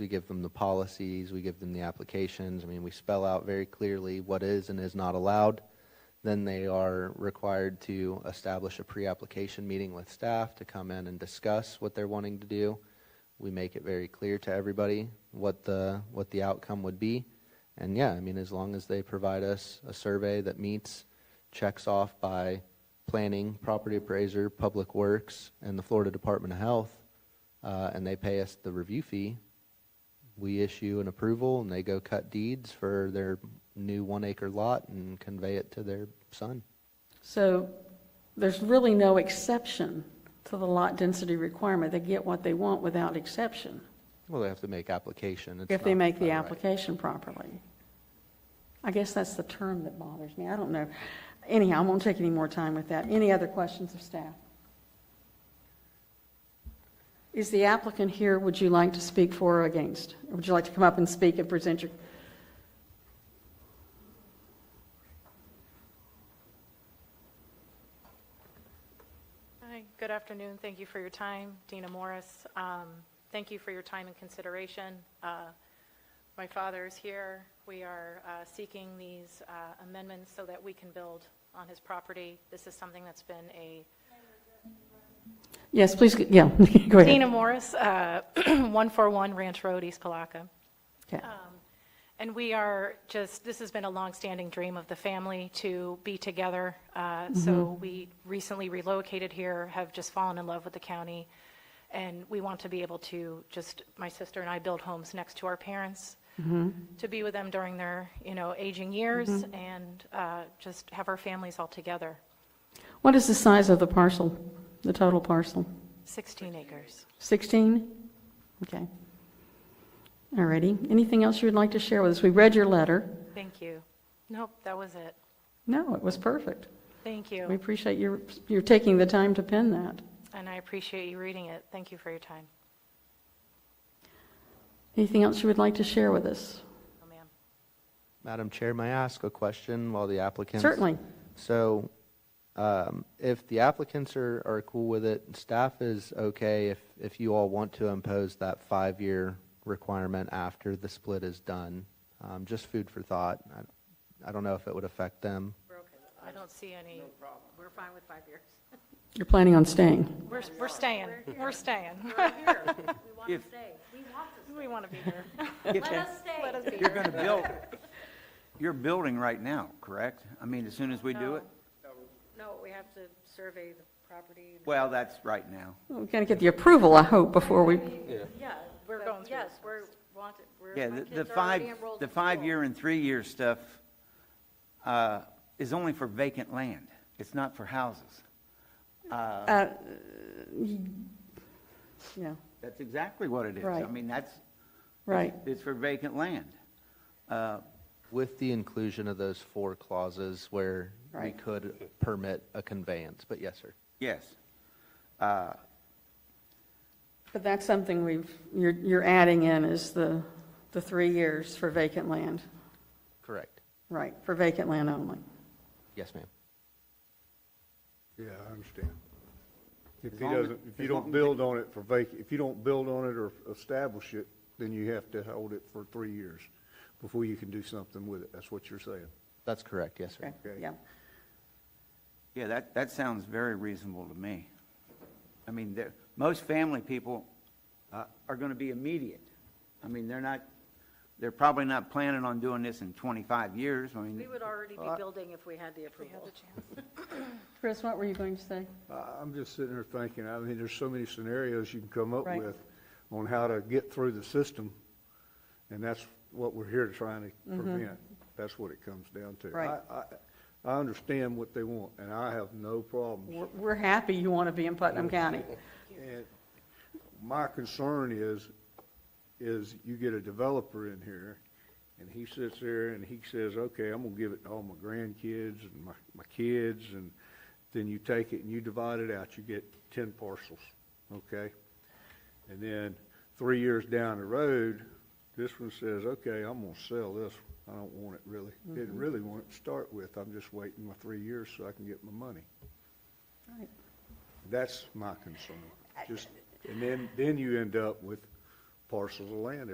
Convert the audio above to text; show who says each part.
Speaker 1: We give them the policies, we give them the applications. I mean, we spell out very clearly what is and is not allowed. Then they are required to establish a pre-application meeting with staff to come in and discuss what they're wanting to do. We make it very clear to everybody what the, what the outcome would be. And yeah, I mean, as long as they provide us a survey that meets, checks off by planning, property appraiser, public works, and the Florida Department of Health, uh, and they pay us the review fee, we issue an approval and they go cut deeds for their new one acre lot and convey it to their son.
Speaker 2: So there's really no exception to the lot density requirement. They get what they want without exception
Speaker 1: Well, they have to make application. It's
Speaker 2: if they
Speaker 1: not
Speaker 2: make the
Speaker 1: by right.
Speaker 2: application properly. I guess that's the term that bothers me. I don't know. Anyhow, I won't take any more time with that. Any other questions of staff? Is the applicant here? Would you like to speak for or against? Would you like to come up and speak and present your,
Speaker 3: Hi, good afternoon. Thank you for your time. Dina Morris. Um, Thank you for your time and consideration. Uh, My father is here. We are uh, seeking these uh, amendments so that we can build on his property. This is something that's been a
Speaker 2: yes, please, yeah, go ahead.
Speaker 3: Dina Morris, uh, 141 Ranch Road, East Palaka.
Speaker 2: Okay.
Speaker 3: And we are just, this has been a longstanding dream of the family to be together. Uh, So we recently relocated here, have just fallen in love with the county. And we want to be able to just, my sister and I build homes next to our parents, to be with them during their, you know, aging years and uh, just have our families all together.
Speaker 2: What is the size of the parcel, the total parcel?
Speaker 3: 16 acres.
Speaker 2: 16? Okay. All righty. Anything else you would like to share with us? We read your letter.
Speaker 3: Thank you. Nope, that was it.
Speaker 2: No, it was perfect.
Speaker 3: Thank
Speaker 2: We
Speaker 3: you.
Speaker 2: appreciate your, your taking the time to pen that.
Speaker 3: And I appreciate you reading it. Thank you for your time.
Speaker 2: Anything else you would like to share with us?
Speaker 3: Oh, ma'am.
Speaker 1: Madam Chair, may I ask a question while the applicants?
Speaker 2: Certainly.
Speaker 1: So um, if the applicants are, are cool with it, staff is okay if, if you all want to impose that five-year requirement after the split is done. Um, Just food for thought. I- I don't know if it would affect them.
Speaker 3: I don't see any,
Speaker 4: We're fine with five years.
Speaker 2: You're planning on staying.
Speaker 3: we're, we're staying, we're staying.
Speaker 4: We want to
Speaker 5: If-
Speaker 4: stay. We want to
Speaker 3: We want to be here.
Speaker 5: If
Speaker 4: stay. Let us stay.
Speaker 3: Let us be
Speaker 5: You're
Speaker 3: here.
Speaker 5: going to build, you're building right now, correct? I mean, as soon as we do it?
Speaker 4: No, we have to survey the property.
Speaker 5: Well, that's right now.
Speaker 2: We're going to get the approval, I hope, before we,
Speaker 4: Yeah, we're
Speaker 3: going through
Speaker 4: Yes, we're wanted, we're,
Speaker 5: Yeah,
Speaker 4: my
Speaker 5: the- the
Speaker 4: kids are already
Speaker 5: five,
Speaker 4: enrolled
Speaker 5: the
Speaker 4: in school.
Speaker 5: five-year and three-year stuff uh, is only for vacant land. It's not for houses.
Speaker 2: yeah,
Speaker 5: That's exactly what it is. I
Speaker 2: Right.
Speaker 5: mean, that's,
Speaker 2: right.
Speaker 5: it's for vacant land.
Speaker 1: With the inclusion of those four clauses where we
Speaker 2: Right.
Speaker 1: could permit a conveyance, but yes, sir.
Speaker 5: Yes.
Speaker 2: But that's something we've, you're, you're adding in is the, the three years for vacant land.
Speaker 1: Correct.
Speaker 2: Right, for vacant land only.
Speaker 1: Yes, ma'am.
Speaker 6: Yeah, I understand. If
Speaker 5: As
Speaker 6: he
Speaker 5: long as-
Speaker 6: doesn't, if you
Speaker 5: as long
Speaker 6: don't
Speaker 5: as-
Speaker 6: build on it for vac, if you don't build on it or establish it, then you have to hold it for three years before you can do something with it. That's what you're saying.
Speaker 1: That's correct, yes, sir.
Speaker 2: Okay, yeah.
Speaker 5: Yeah, that, that sounds very reasonable to me. I mean, there, most family people uh, are going to be immediate. I mean, they're not, they're probably not planning on doing this in 25 years. I mean,
Speaker 4: We would already
Speaker 5: Uh,
Speaker 4: be building if we had the approval.
Speaker 2: Chris, what were you going to say?
Speaker 6: I- I'm just sitting there thinking, I mean, there's so many scenarios you can come up
Speaker 2: Right.
Speaker 6: with on how to get through the system, and that's what we're here trying to prevent. That's what it comes down to.
Speaker 2: Mm-hmm. Right.
Speaker 6: I, I, I understand what they want, and I have no problems
Speaker 2: We're, we're happy you want to be in Putnam County.
Speaker 6: And my concern is, is you get a developer in here, and he sits there and he says, okay, I'm gonna give it to all my grandkids and my, my kids, and then you take it and you divide it out, you get ten parcels, okay? And then, three years down the road, this one says, okay, I'm gonna sell this, I don't want it really, didn't really want it to start with, I'm just waiting my three years so I can get my money.
Speaker 2: Right.
Speaker 6: That's my concern. Just, and then, then you end up with parcels of land